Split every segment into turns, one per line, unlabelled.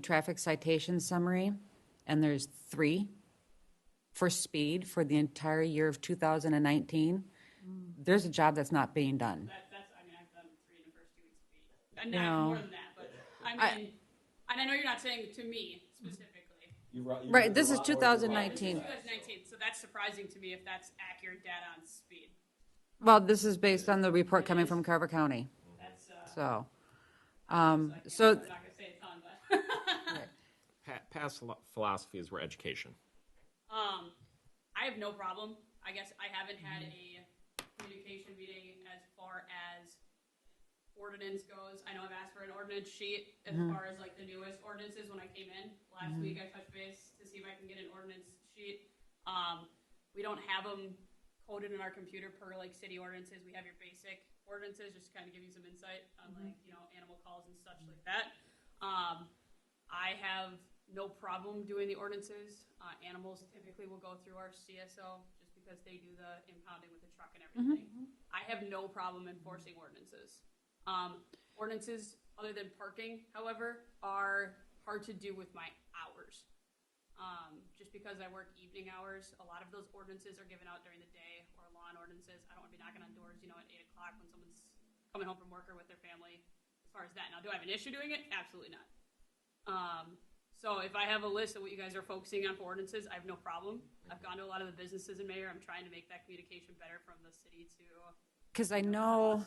traffic citation summary, and there's three for speed for the entire year of 2019, there's a job that's not being done.
That, that's, I mean, I've done three in the first two weeks of the week. And not
No.
more than that, but I mean, and I know you're not saying to me specifically.
You ru- you
Right,
ru-
this
you
is
ru-
2019.
2019, so that's surprising to me if that's accurate data on speed.
Well, this is based on the report coming from Carver County,
That's, uh,
so. Um,
I'm
so,
not gonna say a ton, but,
Pa- past philo- philosophies were education.
um, I have no problem. I guess I haven't had a communication meeting as far as ordinance goes. I know I've asked for an ordinance sheet as far as like the newest ordinances when I came in. Last week I touched base to see if I can get an ordinance sheet. Um, we don't have them coded in our computer per like city ordinances. We have your basic ordinances just to kind of give you some insight on like, you know, animal calls and such like that. Um, I have no problem doing the ordinances. Uh, animals typically will go through our CSO just because they do the impounding with the truck and everything. I have no problem enforcing ordinances. Um, ordinances, other than parking, however, are hard to do with my hours. Um, just because I work evening hours, a lot of those ordinances are given out during the day or lawn ordinances. I don't want to be knocking on doors, you know, at eight o'clock when someone's coming home from work or with their family. As far as that, now, do I have an issue doing it? Absolutely not. Um, so if I have a list of what you guys are focusing on for ordinances, I have no problem. I've gone to a lot of the businesses in Mayor. I'm trying to make that communication better from the city to
because I know,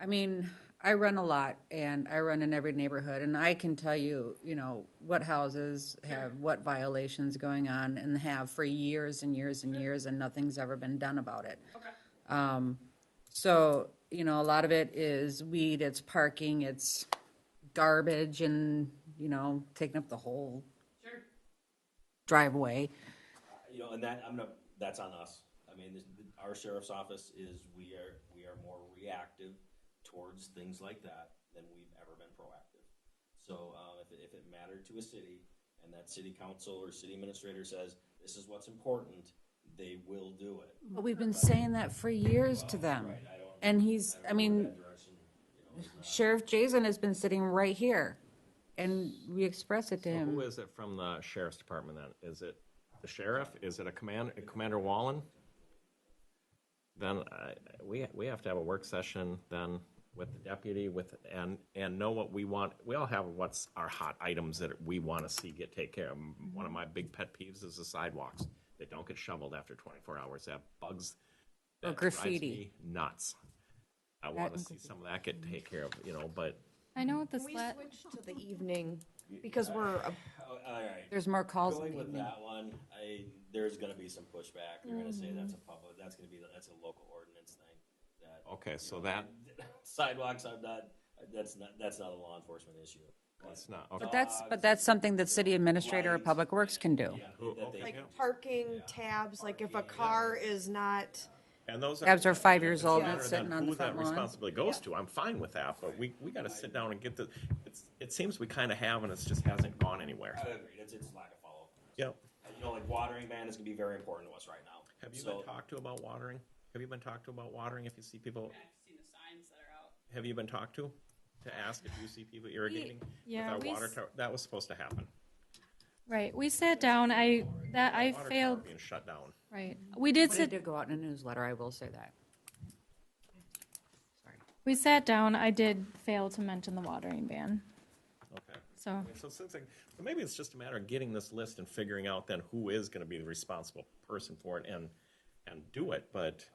I mean, I run a lot and I run in every neighborhood and I can tell you, you know, what houses have what violations going on and have for years and years and years and nothing's ever been done about it.
Okay.
Um, so, you know, a lot of it is weed, it's parking, it's garbage and, you know, taking up the whole
Sure.
driveway.
You know, and that I'm gonna, that's on us. I mean, this, our sheriff's office is we are we are more reactive towards things like that than we've ever been proactive. So uh, if it, if it mattered to a city and that city council or city administrator says this is what's important, they will do it.
But we've been saying that for years to them. And he's, I mean,
That direction, you know, is not-
Sheriff Jason has been sitting right here, and we express it to
Who
him.
is it from the sheriff's department then? Is it the sheriff? Is it a commander, Commander Wallen? Then I, we, we have to have a work session then with the deputy with, and, and know what we want. We all have what's our hot items that we want to see get taken care of.
Mm-hmm.
One of my big pet peeves is the sidewalks. They don't get shoveled after twenty-four hours. They have bugs.
Or
that drives
graffiti.
me Nuts. I want to
and
see some of that get taken care of, you know, but
I know what this
We
let,
switched to the evening because we're, uh, a-
Oh, all right.
There's more calls in
Going
the
with
evening.
that one, I, there's gonna be some pushback. They're gonna say that's a
Mm-hmm.
public, that's gonna be, that's a local ordinance thing. That
Okay, so that,
sidewalks, I'm not, that's not, that's not a law enforcement issue.
that's not, okay.
But that's, but that's something that city administrator or public works can do.
Yeah,
Oh,
that they-
like parking tabs, like if a car is not,
And those
Tabs are five years old,
doesn't
it's
matter
sitting
then
on the
who
front
that
lawn.
responsibility goes to, I'm fine with that, but we, we gotta sit down and get the, it's, it seems we kinda have and it's just hasn't gone anywhere.
I agree, it's, it's lack of follow.
Yep.
You know, like watering ban is gonna be very important to us right now.
Have you
So-
been talked to about watering? Have you been talked to about watering if you see people,
I've seen the signs that are out.
have you been talked to? To ask if you see people irrigating with
yeah,
our
we
water
s-
tower, that was supposed to happen.
right, we sat down, I, that, I
Water tower
failed,
Being shut down.
right. We did
But it
sit,
did go out in a newsletter, I will say that. Sorry.
we sat down, I did fail to mention the watering ban,
Okay.
so,
I mean, So since, I- so maybe it's just a matter of getting this list and figuring out then who is gonna be the responsible person for it and, and do it, but.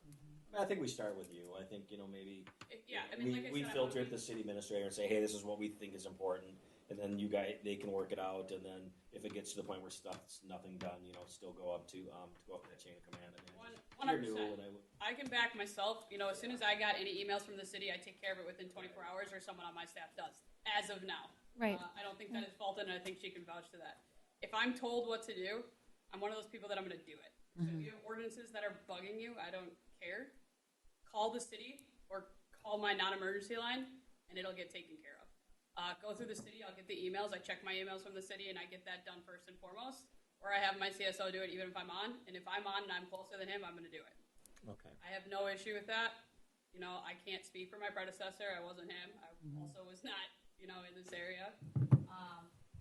I think we start with you. I think, you know, maybe.
It- yeah, I mean,
we,
like I
we
said, I
filter
wanna
it to the city administrator and say, hey, this is what we think is important. And then you guys, they can work it out. And then if it gets to the point where stuff's nothing done, you know, still go up to, um, go up that chain of command. I mean,
One-
you're new,
100%.
and I would-
I can back myself. You know, as soon as I got any emails from the city, I take care of it within 24 hours, or someone on my staff does. As of now,
Right.
Uh, I don't think that is faulted, and I think she can vouch to that. If I'm told what to do, I'm one of those people that I'm going to do it. So if you have ordinances that are bugging you, I don't care. Call the city or call my non-emergency line, and it'll get taken care of. Uh, go through the city. I'll get the emails. I check my emails from the city, and I get that done first and foremost. Or I have my CSO do it, even if I'm on. And if I'm on and I'm closer than him, I'm going to do it.
Okay.
I have no issue with that. You know, I can't speak for my predecessor. I wasn't him. I also was not, you know, in this area. Um,